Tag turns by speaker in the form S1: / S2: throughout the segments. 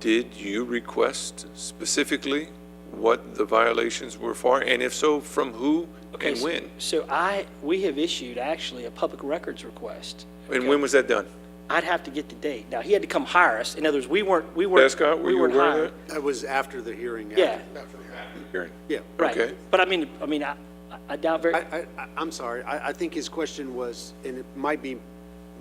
S1: Did you request specifically what the violations were for? And if so, from who
S2: Okay,
S1: and
S2: so-
S1: when?
S2: So I, we have issued actually a public records request.
S1: And when was that done?
S2: I'd have to get the date. Now, he had to come hire us. In other words, we weren't, we weren't.
S1: Prescott, were
S2: we
S1: you
S2: weren't
S1: aware
S2: hired.
S1: of
S3: That was after the hearing. after-
S2: Yeah,
S1: that? Hearing.
S3: Yeah.
S2: right.
S1: Okay.
S2: But I mean, I mean, I I doubt very,
S3: I, I- I, I'm sorry, I, I think his question was, and it might be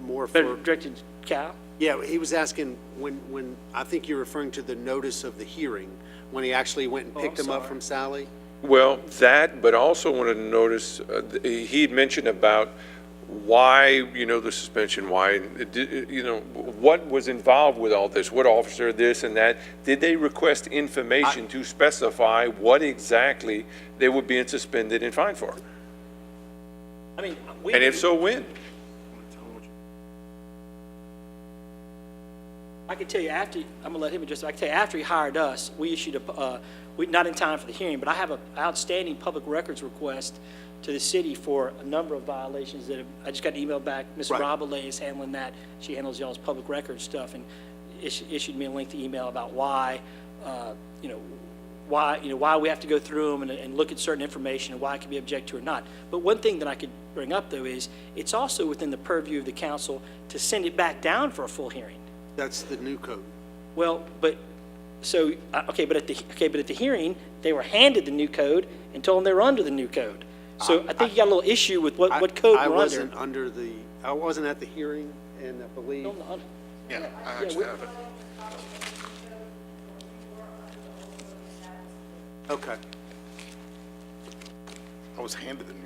S3: more
S2: better
S3: for,
S2: directed Cal?
S3: yeah, he was asking when, when, I think you're referring to the notice of the hearing, when he actually went
S2: Oh,
S3: and picked him up from Sally?
S1: Well, that, but also wanted to notice, uh, th- he had mentioned about why, you know, the suspension, why, it di- you know, what was involved with all this? What officer, this and that? Did they request information to specify what exactly they were being suspended and fined for?
S2: I mean, we.
S1: And if so, when?
S2: I can tell you after, I'm going to let him address it. I can tell you after he hired us, we issued a, uh, we, not in time for the hearing, but I have an outstanding public records request to the city for a number of violations that have, I just got an email back. Ms.
S3: Right.
S2: Robalay is handling that. She handles y'all's public records stuff and issued, issued me a lengthy email about why, uh, you know, why, you know, why we have to go through them and, and look at certain information and why it can be object to or not. But one thing that I could bring up though is it's also within the purview of the council to send it back down for a full hearing.
S3: That's the new code.
S2: Well, but, so, uh, okay, but at the, okay, but at the hearing, they were handed the new code and told them they were under the new code. So I think you got a little issue with what,
S3: I-
S2: what code
S3: I
S2: we're under.
S3: wasn't under the, I wasn't at the hearing, and I believe,
S4: Yeah, I
S2: Yeah, we-
S4: actually have it.
S3: okay.
S4: I was handed the new